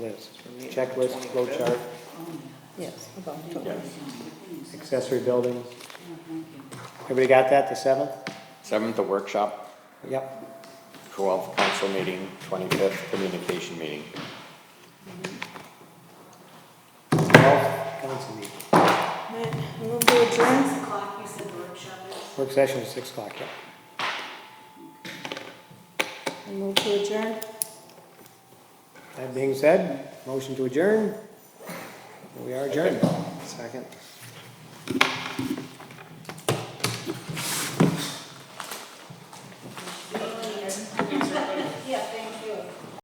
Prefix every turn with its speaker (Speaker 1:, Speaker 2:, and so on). Speaker 1: list, checklist, flow chart,
Speaker 2: Yes.
Speaker 1: accessory buildings. Everybody got that, the seventh?
Speaker 3: Seventh, the workshop,
Speaker 1: Yep,
Speaker 3: twelfth, council meeting, twenty-fifth, communication meeting.
Speaker 1: twelfth, council meeting.
Speaker 2: Move to adjourn.
Speaker 4: o'clock, you said the workshop is?
Speaker 1: Work session is six o'clock, yeah.
Speaker 2: Move to adjourn.
Speaker 1: That being said, motion to adjourn. We are adjourned. Second.